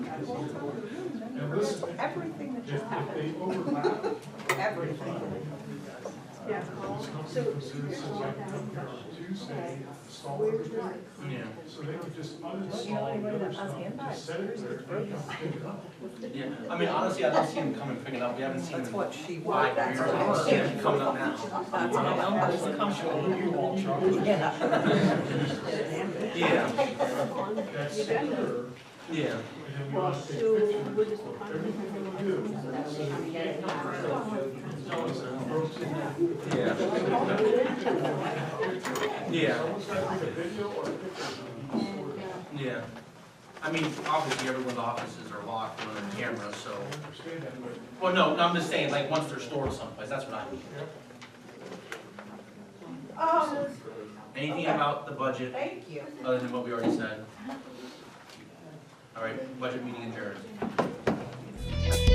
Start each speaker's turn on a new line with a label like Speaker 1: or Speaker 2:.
Speaker 1: And this, if,
Speaker 2: Everything that just
Speaker 1: if
Speaker 2: happened,
Speaker 1: they overlap,
Speaker 2: everything.
Speaker 1: this company considers it like a Tuesday install everything.
Speaker 3: Yeah,
Speaker 1: So they could just uninstall the other stuff, just set it there, and just pick it up.
Speaker 3: yeah. I mean, honestly, I don't see him coming picking up. We haven't seen him.
Speaker 4: That's what she
Speaker 2: Well,
Speaker 4: wanted.
Speaker 2: that's
Speaker 3: I don't see him
Speaker 2: what
Speaker 3: coming up now.
Speaker 2: I'm saying.
Speaker 3: Yeah,
Speaker 1: That's secure, and then
Speaker 3: yeah.
Speaker 1: we want to take pictures. Everything they do, so they can't cover it up. So it's a broken-
Speaker 3: Yeah. Yeah,
Speaker 1: Someone's got to take a video or a picture.
Speaker 3: yeah. I mean, obviously, everyone's offices are locked with their cameras, so.
Speaker 1: I understand that, but
Speaker 3: Well, no, no, I'm just saying, like, once they're stored someplace, that's what I mean.
Speaker 2: Oh,
Speaker 3: Anything about the budget
Speaker 2: thank you.
Speaker 3: other than what we already said? All right, budget meeting adjourned.